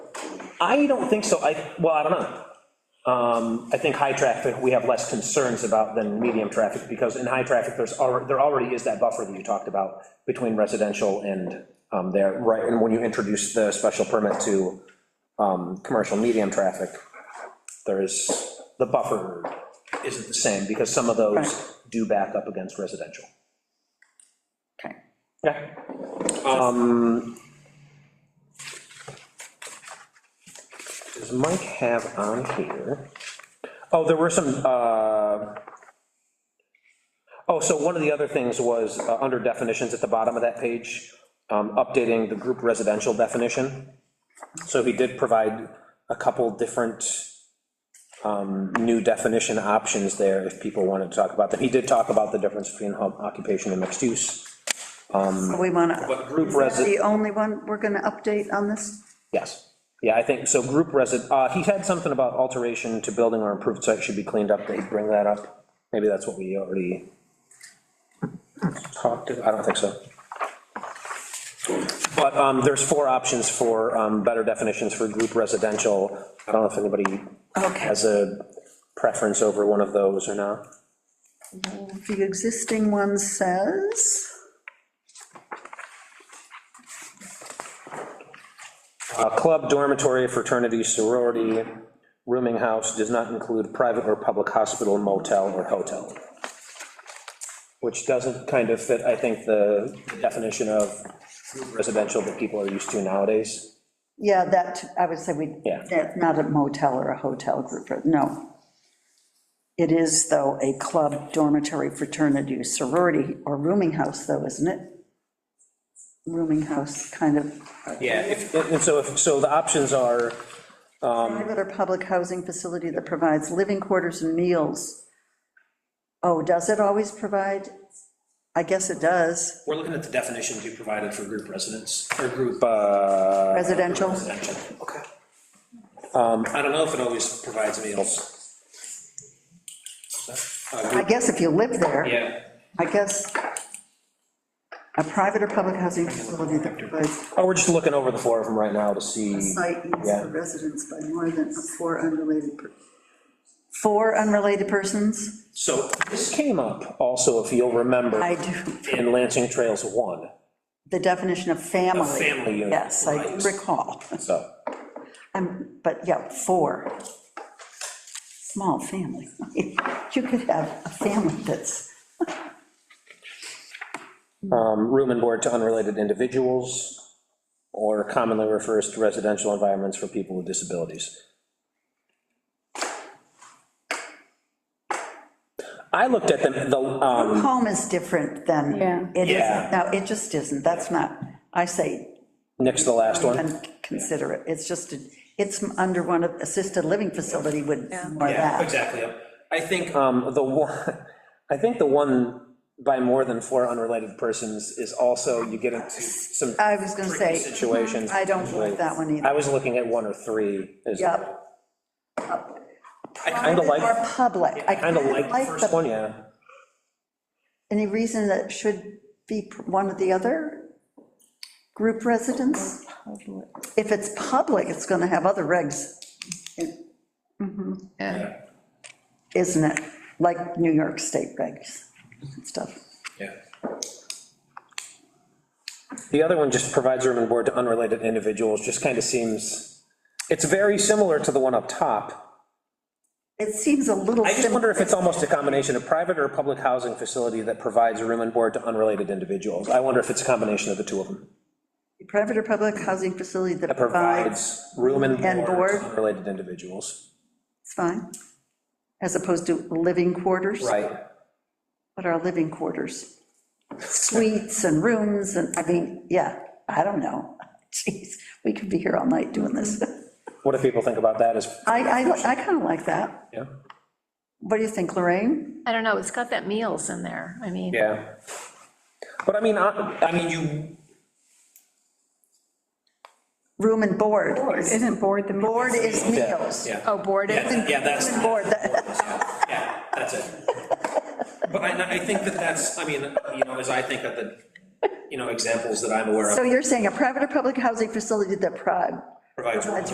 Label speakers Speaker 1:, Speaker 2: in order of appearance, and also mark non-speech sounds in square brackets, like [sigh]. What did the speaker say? Speaker 1: I don't think so, I, well, I don't know. Um, I think high traffic, we have less concerns about than medium traffic, because in high traffic, there's, alre- there already is that buffer that you talked about between residential and um, there, right, and when you introduce the special permit to um, commercial medium traffic, there is, the buffer isn't the same, because some of those
Speaker 2: Right.
Speaker 1: do back up against residential.
Speaker 2: Okay.
Speaker 1: Yeah. Does Mike have on here? Oh, there were some, uh, oh, so one of the other things was, uh, under definitions at the bottom of that page, um, updating the group residential definition. So he did provide a couple different um, new definition options there, if people wanted to talk about them. He did talk about the difference between home occupation and mixed use.
Speaker 2: So we want to,
Speaker 1: But group
Speaker 2: the
Speaker 1: resi,
Speaker 2: only one we're going to update on this?
Speaker 1: yes. Yeah, I think, so group resi, uh, he had something about alteration to building or improved site should be cleaned up, they bring that up. Maybe that's what we already talked to, I don't think so. But, um, there's four options for, um, better definitions for group residential. I don't know if anybody
Speaker 2: Okay.
Speaker 1: has a preference over one of those or not.
Speaker 2: The existing one says,
Speaker 1: A club, dormitory, fraternity, sorority, rooming house does not include private or public hospital, motel, or hotel. Which doesn't kind of fit, I think, the definition of residential that people are used to nowadays.
Speaker 2: yeah, that, I would say we,
Speaker 1: Yeah.
Speaker 2: that- not a motel or a hotel group, no. It is, though, a club, dormitory, fraternity, sorority, or rooming house, though, isn't it? Rooming house, kind of,
Speaker 1: Yeah. if- And so, if- so the options are,
Speaker 2: private or public housing facility that provides living quarters and meals. Oh, does it always provide? I guess it does,
Speaker 3: We're looking at the definitions you provided for group residents, or group
Speaker 1: uh, Um,
Speaker 2: residential.
Speaker 3: residential. Okay. I don't know if it always provides meals. Uh,
Speaker 2: I
Speaker 3: group-
Speaker 2: guess if you live there,
Speaker 3: Yeah,
Speaker 2: I guess a private or public housing facility that provides
Speaker 1: oh, we're just looking over the four of them right now to see.
Speaker 2: site use
Speaker 1: Yeah.
Speaker 2: for residents by more than four unrelated. per- Four unrelated persons?
Speaker 3: so,
Speaker 1: This came up also, if you'll remember,
Speaker 2: I do,
Speaker 1: in Lansing Trails 1,
Speaker 2: the definition of
Speaker 3: a
Speaker 2: family.
Speaker 3: family unit.
Speaker 2: Yes, I
Speaker 3: right.
Speaker 2: do recall.
Speaker 1: so.
Speaker 2: Um, But yeah, four. Small family. [laughs] You could have a family that's,
Speaker 1: um, room and board to unrelated individuals, or commonly refers to residential environments for people with disabilities. I looked at them, the, um,
Speaker 2: home is different than.
Speaker 4: Yeah.
Speaker 2: It
Speaker 1: Yeah.
Speaker 2: isn't, no, it just isn't, that's not, I say,
Speaker 1: next to the last one,
Speaker 2: consider it, it's just, a- it's under one of, assisted living facility would, more
Speaker 3: yeah,
Speaker 2: that.
Speaker 3: exactly. I think,
Speaker 1: um, the one, I think the one by more than four unrelated persons is also, you get into some
Speaker 2: I was gonna
Speaker 1: tricky
Speaker 2: say, uh-huh, "Mm,
Speaker 1: situations.
Speaker 2: I don't like that one either.
Speaker 1: I was looking at one or three, is, I
Speaker 2: Yep.
Speaker 1: kinda like,
Speaker 2: Or public, I
Speaker 1: kinda like the first
Speaker 2: the-
Speaker 1: one, yeah.
Speaker 2: Any reason that it should be pr- one or the other? Group residence? If it's public, it's gonna have other regs,
Speaker 4: Yeah,
Speaker 2: isn't it? Like New York State regs and stuff.
Speaker 3: yeah,
Speaker 1: The other one just provides room and board to unrelated individuals, just kind of seems, it's very similar to the one up top.
Speaker 2: It seems a little
Speaker 1: I just
Speaker 2: similar,
Speaker 1: wonder if it's almost a combination of private or public housing facility that provides room and board to unrelated individuals. I wonder if it's a combination of the two of them.
Speaker 2: private or public housing facility that
Speaker 1: That
Speaker 2: provides,
Speaker 1: provides room and
Speaker 2: And
Speaker 1: board
Speaker 2: board.
Speaker 1: to unrelated individuals.
Speaker 2: it's fine, as opposed to living quarters.
Speaker 1: Right.
Speaker 2: What are living quarters? Suites and rooms and, I mean, yeah, I don't know. [laughs] Jeez, we could be here all night doing this.
Speaker 3: Mm-hmm.
Speaker 1: What do people think about that as,
Speaker 2: I, I, I kind of like that.
Speaker 1: yeah?
Speaker 2: What do you think, Lorraine?
Speaker 4: I don't know, it's got that meals in there, I mean.
Speaker 1: Yeah. But I mean, I, I mean, you,
Speaker 2: Room and board.
Speaker 5: Isn't board the.
Speaker 2: Board is meals.
Speaker 3: yeah.
Speaker 4: Oh, boarded,
Speaker 3: Yeah, yeah, that's,
Speaker 2: [laughs] Board, that-
Speaker 3: yeah, that's it. But I, I think that that's, I mean, you know, as I think of the, you know, examples that I'm aware
Speaker 2: So
Speaker 3: of,
Speaker 2: you're saying a private or public housing facility that prod,
Speaker 3: provides.